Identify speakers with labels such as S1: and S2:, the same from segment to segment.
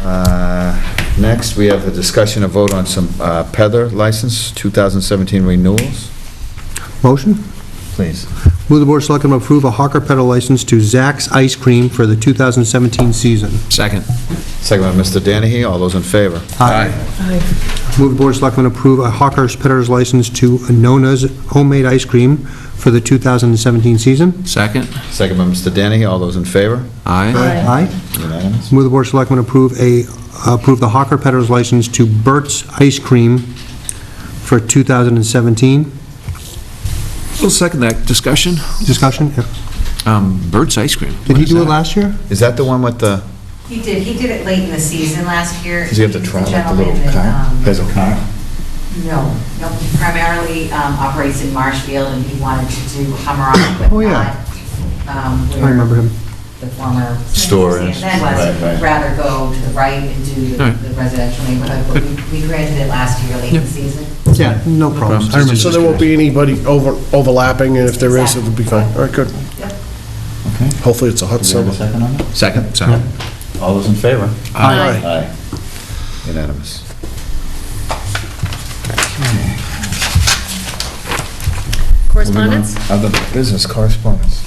S1: Uh, Next, we have a discussion of vote on some uh, Pether license, 2017 renewals.
S2: Motion?
S1: Please.
S2: Move the Board of Selectmen approve a hawker Pedal license to Zack's Ice Cream for the 2017 season.
S3: Second.
S1: Second by Mr. Danahy, all those in favor?
S2: Move the Board of Selectmen approve a hawker's Pedal's license to Nona's Homemade Ice Cream for the 2017 season.
S3: Second.
S1: Second by Mr. Danahy, all those in favor?
S3: Aye.
S2: Aye.
S1: Unanimous?
S2: Move the Board of Selectmen approve a, approve the hawker Pedal's license to Burt's Ice Cream for 2017.
S3: We'll second that discussion.
S2: Discussion? Yeah.
S3: Um, Bert's Ice Cream.
S2: Did
S3: What
S2: he
S3: is
S2: do it
S3: that?
S2: last year?
S1: Is that the one with the,
S4: He did, he did it late in the season last year.
S1: does he have the truck, like the little
S4: gentleman that,
S1: car?
S4: um,
S1: Has a car?
S4: No, no, he primarily um, operates in Marshfield, and he wanted to do Hummer on but
S2: Oh, yeah.
S4: not, um,
S2: I remember him.
S4: where the former
S1: Store is. Right,
S4: CNN
S1: right.
S4: was, rather go to the right and do the
S3: Right.
S4: the residential neighborhood, but we- we granted it last year, late in the
S3: Yeah.
S4: season.
S2: Yeah, no problems. I
S3: problems.
S2: remember.
S5: So there won't be anybody over overlapping, and if there is, it'll be fine. All right, good.
S4: Yep.
S1: Okay.
S5: Hopefully, it's a hot
S1: Do we have
S5: summer.
S1: a second on that?
S3: Second, sorry.
S1: All those in favor?
S5: Aye.
S1: Aye. Unanimous.
S6: Correspondence?
S1: Other business correspondence.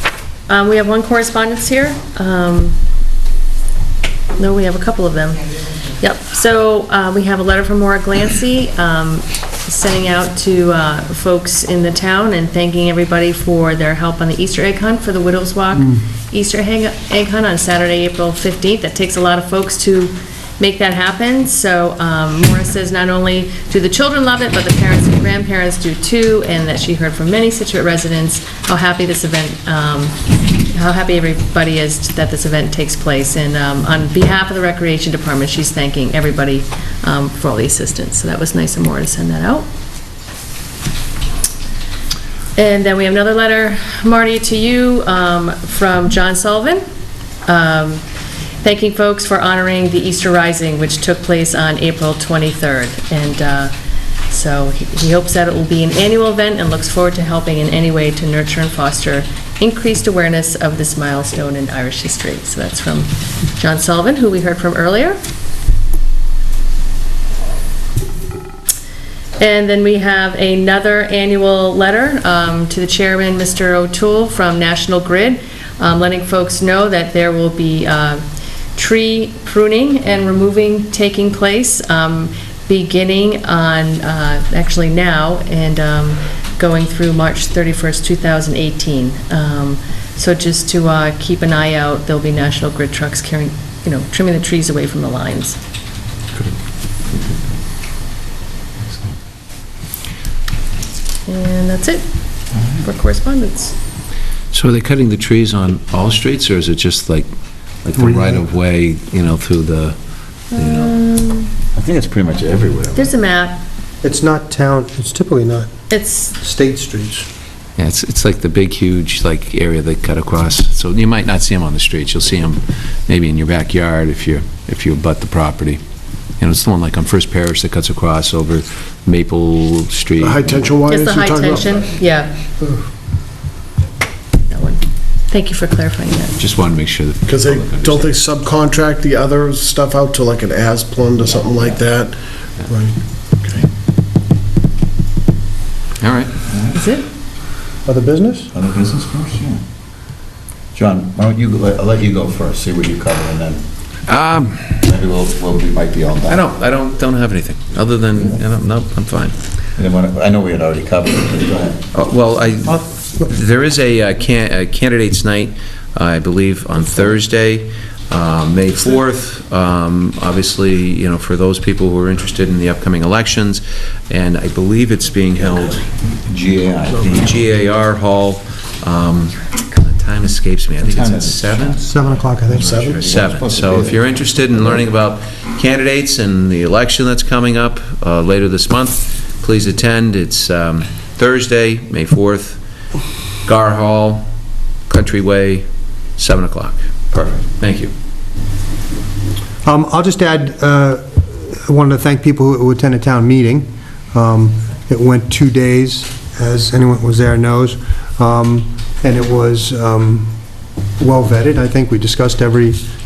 S6: Um, We have one correspondence here. Um, No, we have a couple of them. Yep, so uh, we have a letter from Maura Glancy, um, sending out to uh, folks in the town and thanking everybody for their help on the Easter egg hunt for the Widows Walk Easter egg egg hunt on Saturday, April 15th. That takes a lot of folks to make that happen, so um, Maura says not only do the children love it, but the parents and grandparents do too, and that she heard from many Situate residents how happy this event, um, how happy everybody is that this event takes place, and um, on behalf of the Recreation Department, she's thanking everybody um, for all the assistance, so that was nice of Maura to send that out. And then we have another letter, Marty, to you, um, from John Sullivan, um, thanking folks for honoring the Easter Rising, which took place on April 23rd. And uh, so he he hopes that it will be an annual event and looks forward to helping in any way to nurture and foster increased awareness of this milestone in Irish history. So that's from John Sullivan, who we heard from earlier. And then we have another annual letter um, to the chairman, Mr. O'Toole, from National Grid, um, letting folks know that there will be uh, tree pruning and removing taking place, um, beginning on, uh, actually now, and um, going through March 31st, 2018. Um, So just to uh, keep an eye out, there'll be National Grid trucks carrying, you know, trimming the trees away from the lines. And that's it for correspondence.
S3: So are they cutting the trees on all streets, or is it just like, like the right-of-way, you know, through the, you know?
S1: I think it's pretty much everywhere.
S6: There's a map.
S2: It's not town, it's typically not
S6: It's,
S2: state streets.
S3: Yeah, it's, it's like the big, huge, like, area they cut across. So you might not see them on the streets. You'll see them maybe in your backyard if you, if you abut the property. And it's the one like on First Parish that cuts across over Maple Street.
S5: The high-tension
S1: Oh,
S5: wires
S6: it's the
S5: you're
S6: high
S5: talking about?
S6: tension, yeah. That one. Thank you for clarifying that.
S3: Just wanted to make sure that.
S5: Because they, don't they subcontract the other stuff out to like an Asplund or something like that? Right.
S3: All right.
S6: Is it?
S2: Other business?
S1: Other business first, yeah. John, why don't you, let- I'll let you go first, see what you cover, and then
S3: Um,
S1: maybe we'll, we'll- we might be all done.
S3: I don't, I don't, don't have anything, other than, I don't- no, I'm fine.
S1: And then when- I know we had already covered it, but go ahead.
S3: Uh, Well, I, there is a uh, can- a candidates' night, uh, I believe, on Thursday, um, May 4th, Um, obviously, you know, for those people who are interested in the upcoming elections, and I believe it's being held at
S1: GAI.
S3: the GAR Hall, um, the time escapes me, I think it's
S1: Time
S3: at
S1: is-
S3: 7?
S2: 7 o'clock, I think.
S5: Seven?
S3: Seven.
S1: supposed to
S3: So
S1: be
S3: if
S1: there.
S3: you're interested in learning about candidates and the election that's coming up uh, later this month, please attend. It's um, Thursday, May 4th, Gar Hall, Country Way, 7 o'clock. Perfect. Thank you.
S2: Um, I'll just add, uh, I wanted to thank people who attended town meeting. Um, It went two days, as anyone who was there knows, Um, and it was um, well vetted. I think we discussed every